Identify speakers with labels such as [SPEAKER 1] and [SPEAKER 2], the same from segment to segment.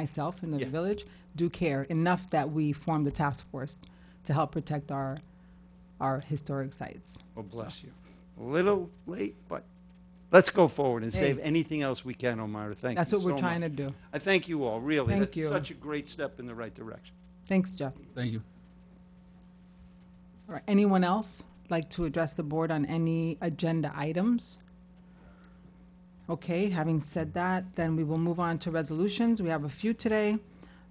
[SPEAKER 1] myself and the
[SPEAKER 2] Yeah.
[SPEAKER 1] village do care enough that we formed a task force to help protect our, our historic sites.
[SPEAKER 2] Well, bless you. A little late, but let's go forward and save anything else we can, Omar. Thank you
[SPEAKER 1] That's what
[SPEAKER 2] so
[SPEAKER 1] we're trying to
[SPEAKER 2] much.
[SPEAKER 1] do.
[SPEAKER 2] I thank you all, really.
[SPEAKER 1] Thank
[SPEAKER 2] That's
[SPEAKER 1] you.
[SPEAKER 2] Such a great step in the right direction.
[SPEAKER 1] Thanks, Jeff.
[SPEAKER 3] Thank you.
[SPEAKER 1] All right, anyone else like to address the board on any agenda items? Okay, having said that, then we will move on to resolutions. We have a few today.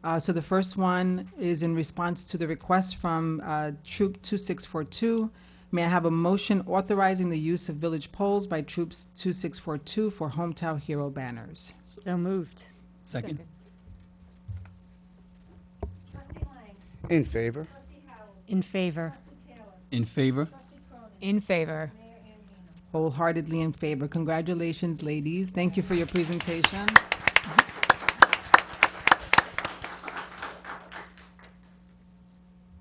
[SPEAKER 1] Uh, So the first one is in response to the request from uh, Troop 2642. May I have a motion authorizing the use of village poles by Troops 2642 for Hometown Hero banners?
[SPEAKER 4] So moved.
[SPEAKER 3] Second.
[SPEAKER 5] Trustee Lang.
[SPEAKER 6] In favor?
[SPEAKER 5] Trustee Howell.
[SPEAKER 4] In favor.
[SPEAKER 5] Trustee Taylor.
[SPEAKER 3] In favor?
[SPEAKER 5] Trustee Cronin.
[SPEAKER 4] In favor.
[SPEAKER 5] Mayor Andino.
[SPEAKER 1] Wholeheartedly in favor. Congratulations, ladies. Thank you for your presentation.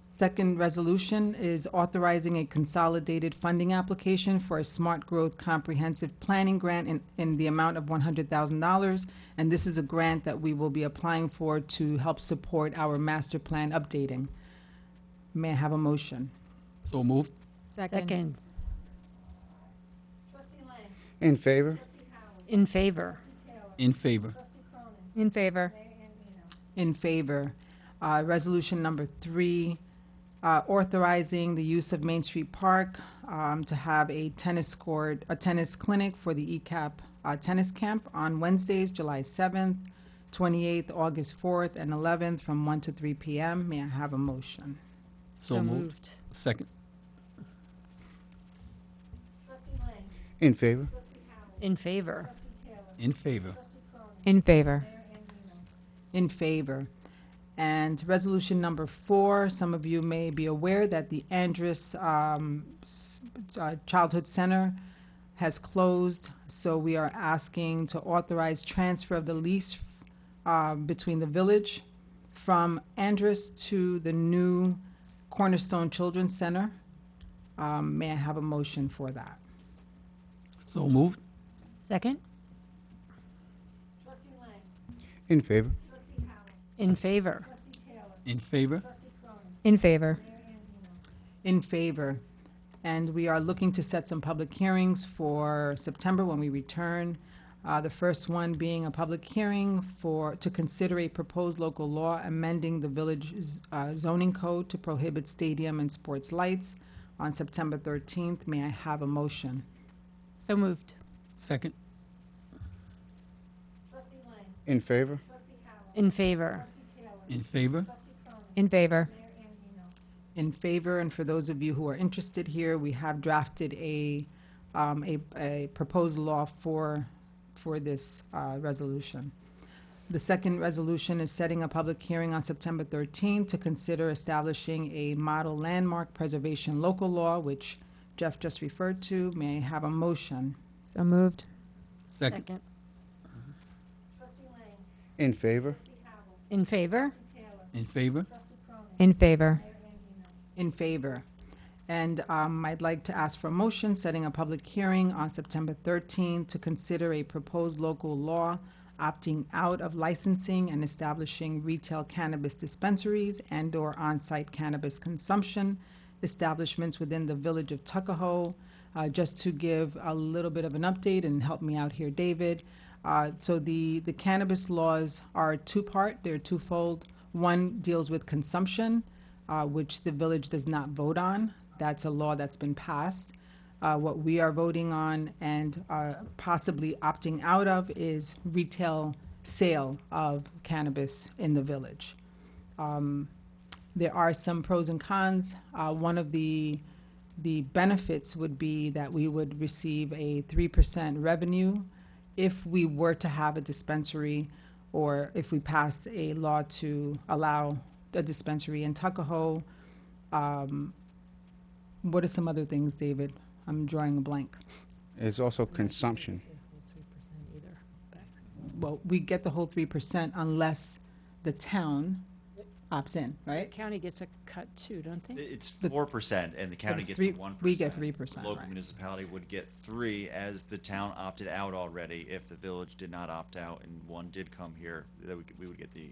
[SPEAKER 1] Second resolution is authorizing a consolidated funding application for a Smart Growth Comprehensive Planning Grant in, in the amount of one hundred thousand dollars. And this is a grant that we will be applying for to help support our master plan updating. May I have a motion?
[SPEAKER 3] So moved.
[SPEAKER 4] Second.
[SPEAKER 5] Trustee Lang.
[SPEAKER 6] In favor?
[SPEAKER 5] Trustee Howell.
[SPEAKER 4] In favor.
[SPEAKER 5] Trustee Taylor.
[SPEAKER 3] In favor?
[SPEAKER 5] Trustee Cronin.
[SPEAKER 4] In favor.
[SPEAKER 5] Mayor Andino.
[SPEAKER 1] In favor. Uh, Resolution number three, uh, authorizing the use of Main Street Park um, to have a tennis court, a tennis clinic for the ECAP uh, Tennis Camp on Wednesdays, July 7th, 28th, August 4th, and 11th, from 1 to 3 p.m. May I have a motion?
[SPEAKER 3] So moved. Second.
[SPEAKER 5] Trustee Lang.
[SPEAKER 6] In favor?
[SPEAKER 5] Trustee Howell.
[SPEAKER 4] In favor.
[SPEAKER 5] Trustee Taylor.
[SPEAKER 3] In favor?
[SPEAKER 5] Trustee Cronin.
[SPEAKER 4] In favor.
[SPEAKER 5] Mayor Andino.
[SPEAKER 1] In favor. And resolution number four, some of you may be aware that the Andrus um, s- uh, Childhood Center has closed, so we are asking to authorize transfer of the lease uh, between the village from Andrus to the new Cornerstone Children's Center. Um, May I have a motion for that?
[SPEAKER 3] So moved.
[SPEAKER 4] Second.
[SPEAKER 5] Trustee Lang.
[SPEAKER 6] In favor?
[SPEAKER 5] Trustee Howell.
[SPEAKER 4] In favor.
[SPEAKER 5] Trustee Taylor.
[SPEAKER 3] In favor?
[SPEAKER 5] Trustee Cronin.
[SPEAKER 4] In favor.
[SPEAKER 5] Mayor Andino.
[SPEAKER 1] In favor. And we are looking to set some public hearings for September when we return. Uh, The first one being a public hearing for, to consider a proposed local law amending the village z- uh, zoning code to prohibit stadium and sports lights on September 13th. May I have a motion?
[SPEAKER 4] So moved.
[SPEAKER 3] Second.
[SPEAKER 5] Trustee Lang.
[SPEAKER 6] In favor?
[SPEAKER 5] Trustee Howell.
[SPEAKER 4] In favor.
[SPEAKER 5] Trustee Taylor.
[SPEAKER 3] In favor?
[SPEAKER 5] Trustee Cronin.
[SPEAKER 4] In favor.
[SPEAKER 5] Mayor Andino.
[SPEAKER 1] in favor, and for those of you who are interested here, we have drafted a, um, a, a proposed law for, for this, uh, resolution. The second resolution is setting a public hearing on September thirteenth to consider establishing a model landmark preservation local law, which Jeff just referred to. May I have a motion?
[SPEAKER 4] So moved.
[SPEAKER 3] Second.
[SPEAKER 5] Trustee Lang.
[SPEAKER 6] In favor?
[SPEAKER 5] Trustee Howell.
[SPEAKER 4] In favor.
[SPEAKER 5] Trustee Taylor.
[SPEAKER 3] In favor?
[SPEAKER 5] Trustee Cronin.
[SPEAKER 4] In favor.
[SPEAKER 5] Mayor Andino.
[SPEAKER 1] In favor. And um, I'd like to ask for a motion setting a public hearing on September 13 to consider a proposed local law opting out of licensing and establishing retail cannabis dispensaries and/or on-site cannabis consumption establishments within the village of Tuckahoe. Uh, Just to give a little bit of an update and help me out here, David. Uh, So the, the cannabis laws are two-part, they're twofold. One deals with consumption, uh, which the village does not vote on. That's a law that's been passed. Uh, What we are voting on and uh, possibly opting out of is retail sale of cannabis in the village. Um, There are some pros and cons. Uh, One of the, the benefits would be that we would receive a 3% revenue if we were to have a dispensary or if we passed a law to allow a dispensary in Tuckahoe. Um, What are some other things, David? I'm drawing a blank.
[SPEAKER 6] There's also consumption.
[SPEAKER 1] Well, we get the whole three percent unless the town opts in, right?
[SPEAKER 7] County gets a cut too, don't they?
[SPEAKER 8] It's
[SPEAKER 1] The-
[SPEAKER 8] four percent, and the
[SPEAKER 1] But
[SPEAKER 8] county
[SPEAKER 1] it's
[SPEAKER 8] gets
[SPEAKER 1] three-
[SPEAKER 8] the one percent.
[SPEAKER 1] We get three percent,
[SPEAKER 8] Local municipality would get three, as the town opted out already. If the village did not opt out and one did come here, that we, could- we would get the